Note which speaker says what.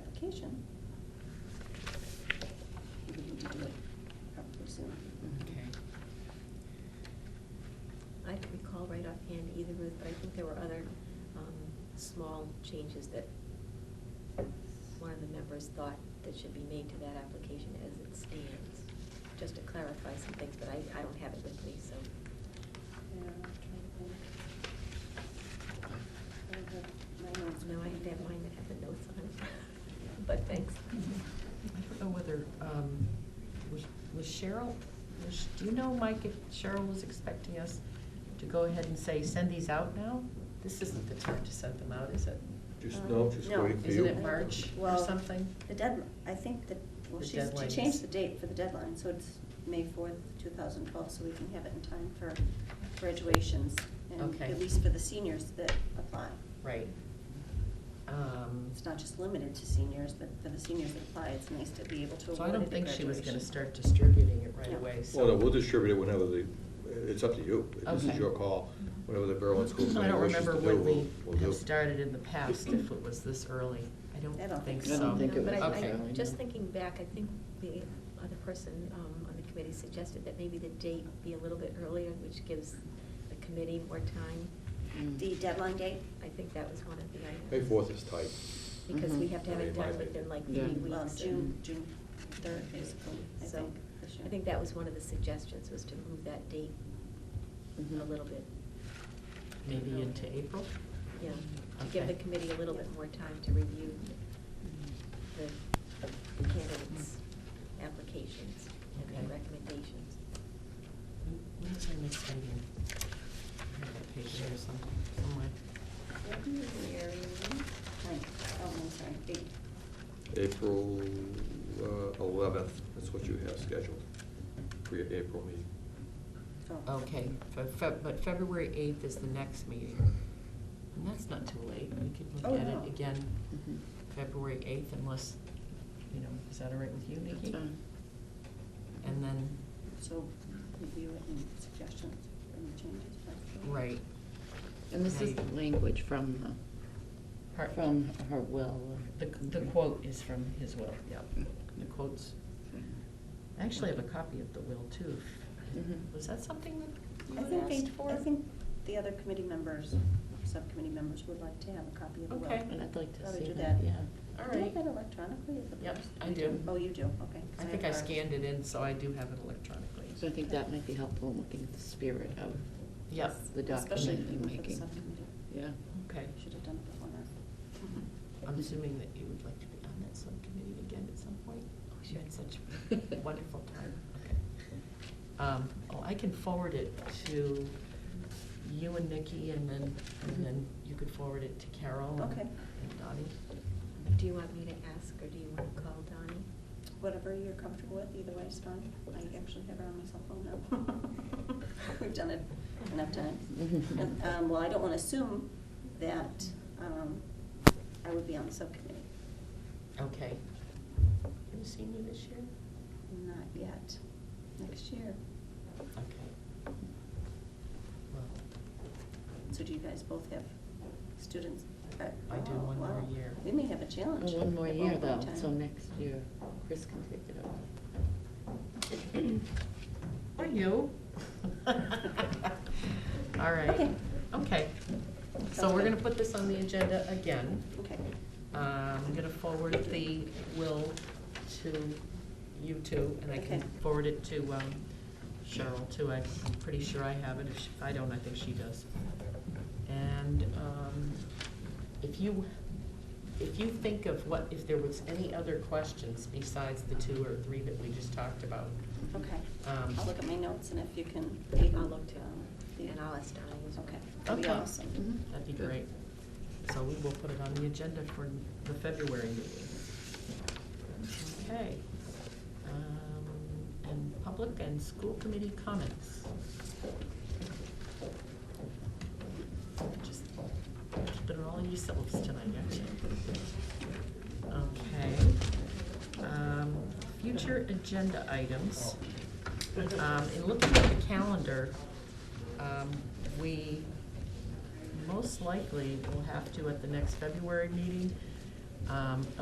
Speaker 1: application. We would need to do it probably soon.
Speaker 2: Okay.
Speaker 3: I can recall right offhand either, Ruth, but I think there were other um, small changes that one of the members thought that should be made to that application as it stands, just to clarify some things, but I, I don't have it with me, so.
Speaker 1: Yeah, I'm trying to think. I don't have my notes.
Speaker 3: No, I have to have mine that have the notes on it, but thanks.
Speaker 2: I don't know whether, um, was was Cheryl, was- do you know, Mike, if Cheryl was expecting us to go ahead and say, send these out now? This isn't the time to send them out, is it?
Speaker 4: Just,
Speaker 1: Um,
Speaker 4: no, just
Speaker 1: no.
Speaker 4: waiting for you.
Speaker 2: Isn't it March or
Speaker 1: Well,
Speaker 2: something?
Speaker 1: The deadline, I think that, well,
Speaker 2: The
Speaker 1: she's, she
Speaker 2: deadline is-
Speaker 1: changed the date for the deadline, so it's May fourth, two thousand twelve, so we can have it in time for graduations. And
Speaker 2: Okay.
Speaker 1: at least for the seniors that apply.
Speaker 2: Right. Um,
Speaker 1: It's not just limited to seniors, but for the seniors that apply, it's nice to be able to
Speaker 2: So
Speaker 1: award
Speaker 2: I
Speaker 1: it
Speaker 2: don't
Speaker 1: at
Speaker 2: think she was gonna
Speaker 1: graduation.
Speaker 2: start distributing it right
Speaker 1: No.
Speaker 2: away,
Speaker 4: Well, no,
Speaker 2: so.
Speaker 4: we'll distribute it whenever the, it's up to you. This is
Speaker 2: Okay. Mm-hmm.
Speaker 4: your call. Whatever the Berlin School
Speaker 2: I
Speaker 4: Committee
Speaker 2: don't
Speaker 4: wishes to
Speaker 2: remember
Speaker 4: do,
Speaker 2: when
Speaker 4: we'll, we'll
Speaker 2: we
Speaker 4: do.
Speaker 2: have started in the past, if it was this early. I
Speaker 1: I
Speaker 2: don't
Speaker 1: don't
Speaker 2: think
Speaker 1: think
Speaker 2: so.
Speaker 5: I don't think it
Speaker 3: But
Speaker 5: was
Speaker 3: I-
Speaker 2: Okay.
Speaker 3: I-
Speaker 5: early,
Speaker 3: Just
Speaker 5: no.
Speaker 3: thinking back, I think the other person um, on the committee suggested that maybe the date be a little bit earlier, which gives the committee more time.
Speaker 1: The deadline date?
Speaker 3: I think that was one of the items.
Speaker 4: May fourth is tight.
Speaker 3: Because
Speaker 2: Mm-hmm.
Speaker 3: we have to have
Speaker 4: Mhm.
Speaker 3: it done within like three
Speaker 5: Yeah.
Speaker 3: weeks.
Speaker 1: Well,
Speaker 3: and-
Speaker 1: June, June third, basically, I
Speaker 3: So,
Speaker 1: think, this year.
Speaker 3: I think that was one of the suggestions, was to move that date a
Speaker 2: Mm-hmm.
Speaker 5: Mhm.
Speaker 3: little bit,
Speaker 2: Maybe into April?
Speaker 3: yeah, to give the
Speaker 2: Okay.
Speaker 3: committee a little bit more time to review
Speaker 2: Mm-hmm.
Speaker 3: the candidates' applications and
Speaker 2: Okay.
Speaker 3: their recommendations.
Speaker 2: When- When is our next meeting? I have a page here some- somewhere.
Speaker 1: February, ninth. oh, I'm sorry, eight.
Speaker 4: April uh, eleventh, that's what you have scheduled for your April meeting.
Speaker 1: Oh.
Speaker 2: Okay, Fe- Fe- but February eighth is the next meeting. And that's not too late. We could
Speaker 1: Oh,
Speaker 2: look at
Speaker 1: no.
Speaker 2: it again,
Speaker 5: Mhm.
Speaker 2: February eighth unless, you know, is that all right with you,
Speaker 5: That's
Speaker 2: Nikki?
Speaker 5: fine.
Speaker 2: And then,
Speaker 1: So review it and suggestions and changes. that's all.
Speaker 2: right.
Speaker 5: And this is
Speaker 2: Right.
Speaker 5: language from,
Speaker 2: Her-
Speaker 5: the- from her will.
Speaker 2: The, the quote is from his will, yeah. The quote's, I actually have a copy of the will too.
Speaker 5: Mhm.
Speaker 2: Was that something that
Speaker 1: I
Speaker 2: you
Speaker 1: think
Speaker 2: had
Speaker 1: they,
Speaker 2: asked for?
Speaker 1: I think the other committee members, subcommittee members would like to have a copy of the will.
Speaker 2: Okay.
Speaker 5: And I'd like to
Speaker 1: Thought I'd
Speaker 5: see
Speaker 1: do
Speaker 5: that,
Speaker 1: that.
Speaker 5: yeah.
Speaker 2: All
Speaker 1: Do you
Speaker 2: right.
Speaker 1: have that electronically at the
Speaker 2: Yep,
Speaker 1: desk?
Speaker 2: I do.
Speaker 1: Oh, you do, okay. 'cause
Speaker 2: I think I
Speaker 1: have ours.
Speaker 2: scanned it in, so I do have it electronically.
Speaker 5: So I think that might be helpful in looking at the spirit of,
Speaker 2: Yep,
Speaker 5: the
Speaker 1: Especially
Speaker 5: document you're
Speaker 1: for the
Speaker 5: making.
Speaker 1: subcommittee.
Speaker 5: yeah.
Speaker 2: okay.
Speaker 1: Should have done it before now.
Speaker 2: I'm assuming that you would like to be on that subcommittee again at some point? Oh, you had such a wonderful time, okay. Um, oh, I can forward it to you and Nikki, and then, and then you could forward it to Carol and-
Speaker 1: Okay.
Speaker 2: and Donnie.
Speaker 3: Do you want me to ask, or do you want to call Donnie?
Speaker 1: Whatever you're comfortable with, either way is fine. I actually have her on my cell phone now. We've done it enough times. And, um, Well, I don't want to assume that um, I would be on the subcommittee.
Speaker 2: Okay. Have you seen me this year?
Speaker 1: Not yet. Next year.
Speaker 2: Okay. Well,
Speaker 1: So do you guys both have students? Uh,
Speaker 2: I do
Speaker 1: oh,
Speaker 2: one more
Speaker 1: wow.
Speaker 2: year.
Speaker 1: We may have a challenge.
Speaker 5: Well, One more
Speaker 1: at
Speaker 5: year
Speaker 1: point in
Speaker 5: though,
Speaker 1: time.
Speaker 5: so next year Chris can take it
Speaker 2: Or
Speaker 5: over.
Speaker 2: you. All right,
Speaker 1: Okay.
Speaker 2: okay. So
Speaker 1: Sounds
Speaker 2: we're
Speaker 1: good.
Speaker 2: gonna put this on the agenda again.
Speaker 1: Okay.
Speaker 2: Uh, I'm gonna forward the will to you two, and I can
Speaker 1: Okay.
Speaker 2: forward it to um, Cheryl too. I'm pretty sure I have it. If she- if I don't, I think she does. And um, if you, if you think of what, if there was any other questions besides the two or three that we just talked about,
Speaker 1: Okay.
Speaker 2: um,
Speaker 1: I'll look at my notes and if you can. leave
Speaker 3: I'll
Speaker 1: them,
Speaker 3: look too,
Speaker 1: um, the-
Speaker 3: and I'll ask Donnie as well.
Speaker 1: Okay. That'd be
Speaker 2: Okay.
Speaker 1: awesome.
Speaker 5: Mhm.
Speaker 2: that'd be
Speaker 4: Good.
Speaker 2: great. So we will put it on the agenda for the February meeting. Okay. Um, And public and school committee comments. Just Keeping it all in yourselves tonight, aren't you? Okay. Um, Future agenda items. Um, In looking at the calendar, um, we most likely will have to, at the next February meeting, um,